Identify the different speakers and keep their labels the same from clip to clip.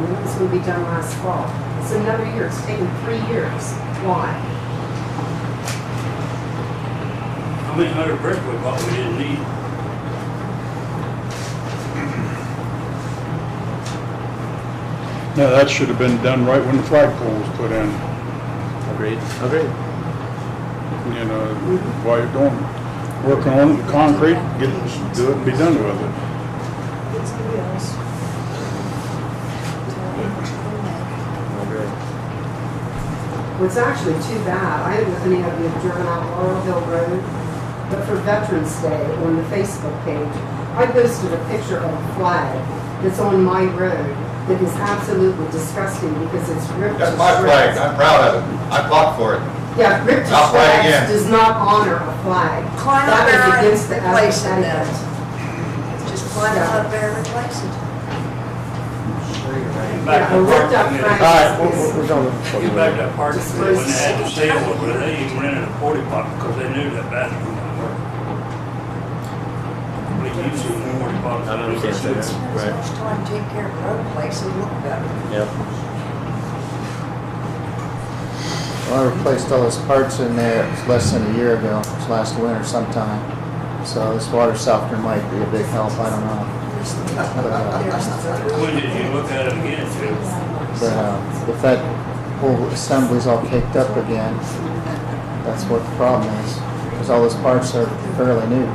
Speaker 1: was gonna be done last fall. It's another year, it's taken three years. Why?
Speaker 2: I mean, hundred brick we bought, we didn't need.
Speaker 3: No, that should have been done right when the flagpole was put in,
Speaker 4: Agreed. Agreed.
Speaker 3: you know, while you're doing, working on the concrete, get, do it and be done with it.
Speaker 5: It's wheels.
Speaker 4: Agreed.
Speaker 1: It's actually too bad. I don't know if any of you have driven out Laurel Hill Road, but for Veterans Day on the Facebook page, I posted a picture of a flag that's on my road that is absolutely disgusting because it's ripped to
Speaker 6: That's my flag,
Speaker 1: shreds.
Speaker 6: I'm proud of it, I fought for it.
Speaker 1: Yeah, ripped to
Speaker 6: I'll fly again.
Speaker 1: shreds does not honor a flag.
Speaker 5: Climb
Speaker 1: That
Speaker 5: up
Speaker 1: is
Speaker 5: there and
Speaker 1: against the
Speaker 5: replace it
Speaker 1: ethics.
Speaker 5: then. Just climb up there and replace it.
Speaker 2: Get
Speaker 1: Yeah,
Speaker 2: back
Speaker 1: a
Speaker 2: that
Speaker 1: ripped up
Speaker 2: parking
Speaker 1: flag.
Speaker 2: lot.
Speaker 4: All right, we're, we're done.
Speaker 2: Get back that parking, lot. when they had the
Speaker 1: Disperse.
Speaker 2: sale over there, they even rented a porta potty because they knew that bathroom wouldn't work. We used to in the porta potties.
Speaker 4: I know we can't say that.
Speaker 5: Spend so
Speaker 4: Right.
Speaker 5: much time taking care of the road place and look better.
Speaker 4: Yep. Well, I replaced all those parts in there, it's less than a year ago, it's last winter sometime. So this water softener might be a big help, I don't know.
Speaker 5: There's the-
Speaker 4: But, uh,
Speaker 5: there's the-
Speaker 2: When did you look at it again, too?
Speaker 4: but, uh, if that whole assembly's all caked up again, that's what the problem is. Cause all those parts are fairly new.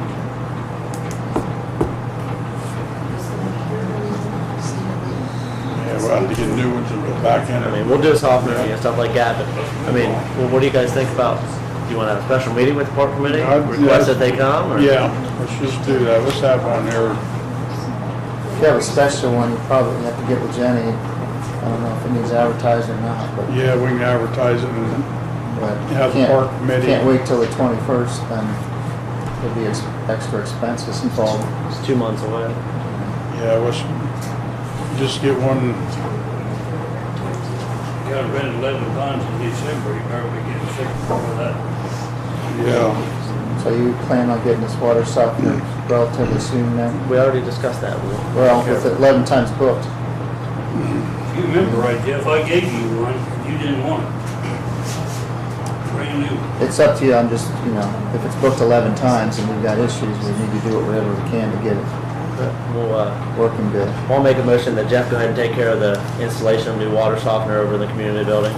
Speaker 3: Yeah, we'll have to get new ones and go back in
Speaker 7: I mean,
Speaker 3: it.
Speaker 7: we'll do softening and stuff like that, but, I mean, well, what do you guys think about, do you wanna have a special meeting with the park committee?
Speaker 3: Yeah, I'd-
Speaker 7: Request that they come, or?
Speaker 3: Yeah, let's just do that, let's have on there,
Speaker 4: If you have a special one, you probably have to get with Jenny. I don't know if it needs advertised or not, but.
Speaker 3: yeah, we can advertise it and,
Speaker 4: But
Speaker 3: Have the
Speaker 4: can't-
Speaker 3: park committee-
Speaker 4: Can't wait till the twenty-first, then there'll be ex- extra expenses involved.
Speaker 7: It's two months away.
Speaker 3: yeah, let's just get one,
Speaker 2: Got rented eleven times in December, you better be getting sick before that.
Speaker 3: yeah.
Speaker 4: So you plan on getting this water softener relatively soon then?
Speaker 7: We already discussed that, we
Speaker 4: Well, with it eleven times booked.
Speaker 2: You remember right, Jeff, I gave you one, you didn't want it. Brand new.
Speaker 4: It's up to you, I'm just, you know, if it's booked eleven times and we've got issues, we need to do whatever we can to get it
Speaker 7: we'll, uh,
Speaker 4: working good.
Speaker 7: we'll make a motion that Jeff go ahead and take care of the installation of new water softener over in the community building.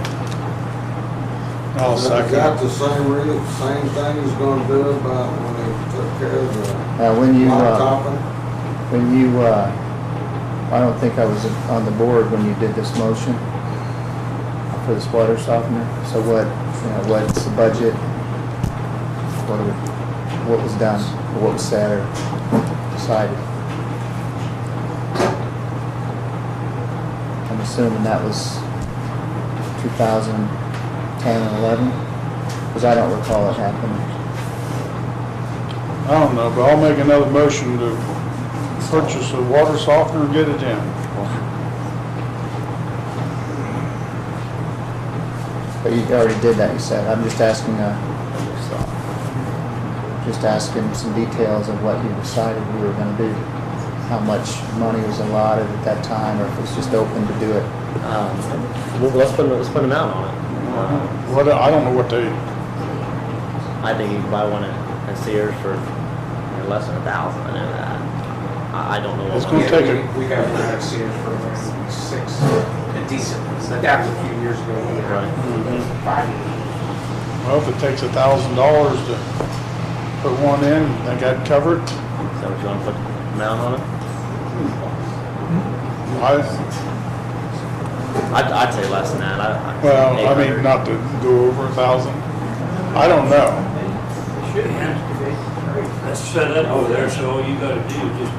Speaker 3: I'll second
Speaker 8: Got
Speaker 3: it.
Speaker 8: the same re, same thing he's gonna do about when they took care of the
Speaker 4: Uh, when you,
Speaker 8: lot
Speaker 4: uh,
Speaker 8: topping?
Speaker 4: when you, uh, I don't think I was on the board when you did this motion for this water softener. So what, you know, what's the budget? What, are we- what was done, or what was said or decided? I'm assuming that was 2010 and 11, because I don't recall it happening.
Speaker 3: I don't know, but I'll make another motion to purchase a water softener and get it in.
Speaker 4: But you already did that, you said. I'm just asking, uh, just asking some details of what you decided we were gonna do. How much money was allotted at that time, or if it's just open to do it.
Speaker 7: Um, well, let's put, let's put an amount on it.
Speaker 3: What, I don't know what they,
Speaker 7: Uh, I think you can buy one at, at Sears for you know, less than a thousand, I know that. I, I don't know. what
Speaker 3: It's
Speaker 7: one-
Speaker 3: gonna
Speaker 9: Yeah,
Speaker 3: take
Speaker 9: we-
Speaker 3: a-
Speaker 9: We got one out of Sears for like six, a decent, one. that was a few years ago. we had
Speaker 7: Right.
Speaker 9: Five years.
Speaker 3: well, if it takes a thousand dollars to put one in, I got covered.
Speaker 7: Is that what you wanna put an amount on it?
Speaker 3: I,
Speaker 7: I'd, I'd say less than that. I, I,
Speaker 3: well, I mean,
Speaker 7: 800.
Speaker 3: not to go over a thousand. I don't know.
Speaker 2: Should have. That's set up over there, so all you gotta do is just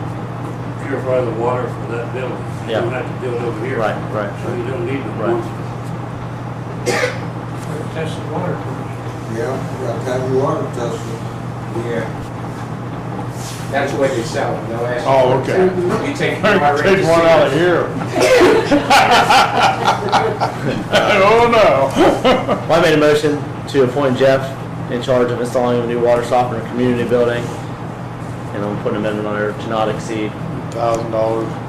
Speaker 2: purify the water for that building. You don't
Speaker 7: Yeah.
Speaker 2: have to do it over here.
Speaker 7: Right, right,
Speaker 2: So you don't need the
Speaker 7: Right.
Speaker 2: ones.
Speaker 9: Test the water.
Speaker 8: Yeah, you got to have your water tested.
Speaker 9: Yeah. That's the way they sell them, they'll ask.
Speaker 3: Oh, okay.
Speaker 9: You take.
Speaker 3: Take one out of here. Oh, no.
Speaker 7: Well, I made a motion to appoint Jeff in charge of installing a new water softener in community building. And I'm putting an amendment on there to not exceed
Speaker 3: Thousand dollars.